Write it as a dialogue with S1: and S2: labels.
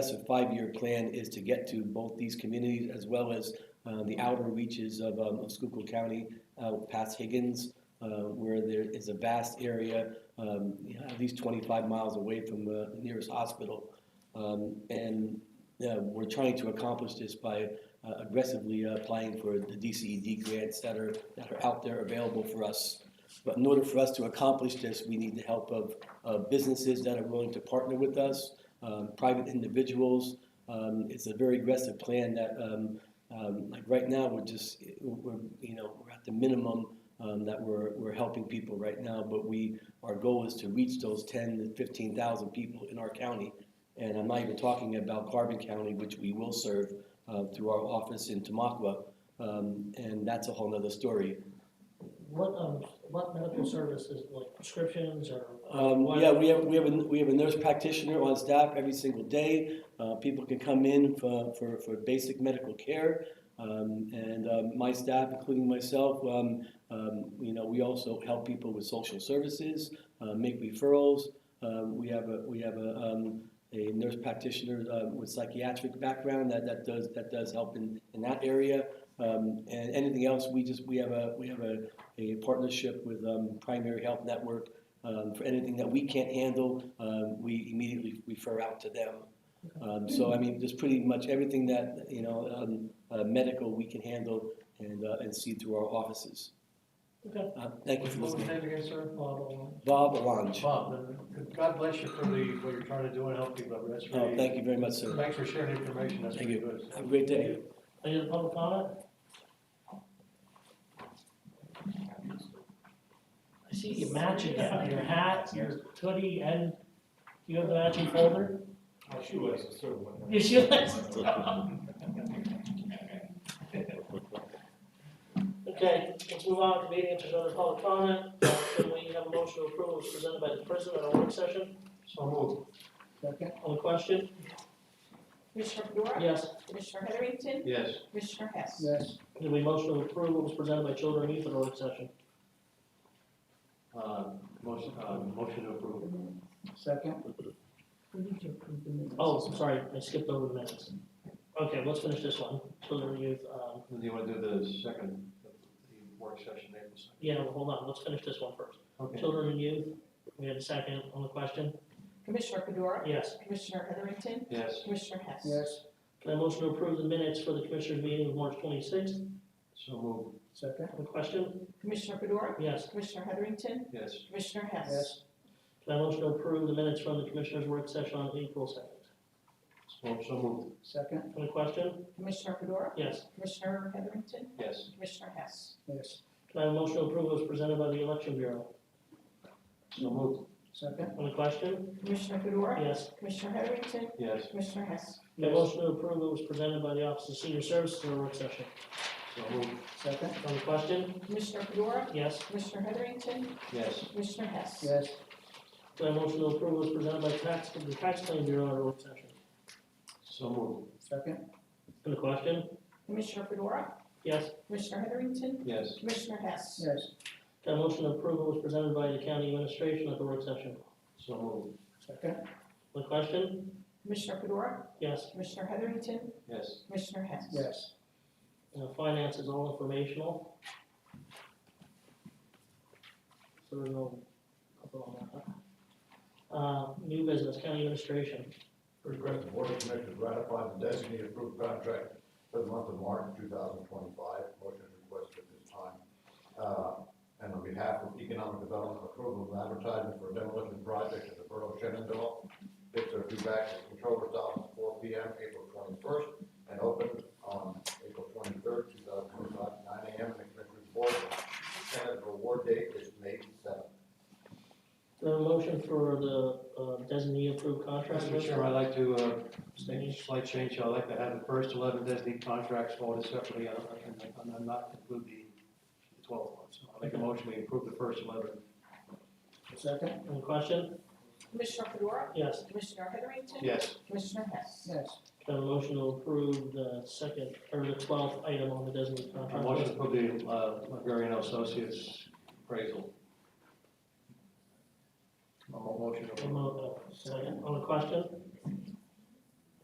S1: Yes, a five-year plan is to get to both these communities as well as uh, the outer reaches of um, of Schuylkill County, uh, past Higgins, uh, where there is a vast area, um, you know, at least 25 miles away from the nearest hospital. Um, And uh, we're trying to accomplish this by uh, aggressively uh, applying for the DCED grants that are, that are out there available for us. But in order for us to accomplish this, we need the help of uh, businesses that are willing to partner with us, um, private individuals. Um, It's a very aggressive plan that, um, um, like, right now, we're just, we're, you know, we're at the minimum um, that we're, we're helping people right now, but we, our goal is to reach those 10 to 15,000 people in our county. And I'm not even talking about Carbon County, which we will serve uh, through our office in Tamaqua. Um, And that's a whole nother story.
S2: What, um, what medical services, like prescriptions or?
S1: Um,
S2: what-
S1: yeah, we have, we have, a, we have a nurse practitioner on staff every single day. Uh, people can come in for, for, for basic medical care. Um, and um, my staff, including myself, um, um, you know, we also help people with social services, uh, make referrals. Um, we have a, we have a, um, a nurse practitioner uh, with psychiatric background that, that does that does help in, in that area. Um, and anything else, we just we have a we have a, a partnership with um, Primary Health Network um, for anything that we can't handle, um, we immediately refer out to them. Um, so I mean, just pretty much everything that you know um, uh, medical we can handle and uh, and see through our offices.
S2: Okay.
S1: Uh, thank you for
S3: What was
S1: listening,
S3: your name again, sir?
S2: Well,
S1: Bob Alange.
S3: Bob, and God bless you for the, what you're trying to do and help people. That's
S1: Oh,
S3: really.
S1: thank you very much, sir.
S3: Thanks for sharing information. That's
S1: Thank
S3: really
S1: you.
S3: good.
S1: Have a great day.
S2: Any other public comment? I see you matching that, your hat, your hoodie, and you have the matching folder?
S3: My shoelace is sort of
S2: You should Okay, let's move on to meeting if there's other public comment. uh, Can we have a motion to approve as presented by the president at a work session?
S3: So moved.
S2: Second. On the question?
S4: Commissioner Fedora?
S2: Yes.
S4: Commissioner Heatherington?
S3: Yes.
S4: Commissioner Hess?
S2: Yes. Can we motion to approve what was presented by children and youth at a work session?
S3: Uh, motion, uh, motion to approve.
S2: Second. Oh, sorry, I skipped over the minutes. Okay, let's finish this one, children and youth, um,
S3: And you want to do the second, the work session, April second?
S2: yeah, well, hold on, let's finish this one first.
S3: Okay.
S2: Children and youth, we had a second on the question?
S4: Commissioner Fedora?
S2: Yes.
S4: Commissioner Heatherington?
S3: Yes.
S4: Commissioner Hess?
S2: Yes. Can I motion to approve the minutes for the commissioners meeting of March twenty-sixth?
S3: So moved.
S2: Second. On the question?
S4: Commissioner Fedora?
S2: Yes.
S4: Commissioner Heatherington?
S3: Yes.
S4: Commissioner Hess?
S2: Can I motion to approve the minutes from the commissioners' work session on April second?
S3: So so moved.
S2: Second. On the question?
S4: Commissioner Fedora?
S2: Yes.
S4: Commissioner Heatherington?
S3: Yes.
S4: Commissioner Hess?
S2: Yes. Can I have a motion to approve as presented by the election bureau?
S3: So moved.
S2: Second. On the question?
S4: Commissioner Fedora?
S2: Yes.
S4: Commissioner Heatherington?
S3: Yes.
S4: Commissioner Hess?
S2: The motion to approve what was presented by the Office of Senior Services in a work session.
S3: So moved.
S2: Second. On the question?
S4: Commissioner Fedora?
S2: Yes.
S4: Commissioner Heatherington?
S3: Yes.
S4: Commissioner Hess?
S2: Yes. The motion to approve what was presented by tax, the tax claim bureau in a work session.
S3: So moved.
S2: Second. On the question?
S4: Commissioner Fedora?
S2: Yes.
S4: Commissioner Heatherington?
S3: Yes.
S4: Commissioner Hess?
S2: Yes. The motion to approve what was presented by the county administration at the work session.
S3: So moved.
S2: Second. On the question?
S4: Commissioner Fedora?
S2: Yes.
S4: Commissioner Heatherington?
S3: Yes.
S4: Commissioner Hess?
S2: Yes. finance is all informational. So there's no, I'll go on that. Uh, new business, county administration,
S5: Request the board of commissioners ratify the designated approved contract for the month of March two thousand twenty-five. Motion is requested at this time. Uh, and on behalf of economic development, approval of advertising for demolition project at the Borough of Shenandoah. Bids are due back to the controller's office four P M, April twenty-first, and open on April twenty-third, two thousand twenty-five, nine A M. And the commissioners board, Senate award date is May seventh.
S2: the motion for the, uh, designee approved contract.
S3: Mr. Chairman, I'd like to, uh,
S2: Abstain.
S3: make a slight change. I'd like to have the first eleven designated contracts voted separately, and and then not include the twelfth one. So I'll make a motion, we approve the first eleven.
S2: Second. On the question?
S4: Commissioner Fedora?
S2: Yes.
S4: Commissioner Heatherington?
S3: Yes.
S4: Commissioner Hess?
S2: Yes. Can I have a motion to approve the second, or the twelfth item on the designee
S3: A
S2: contract?
S3: motion to approve the, uh, Hungarian Associates appraisal. A mo- motion to
S2: A
S3: approve.
S2: mo- uh, Second, on the question?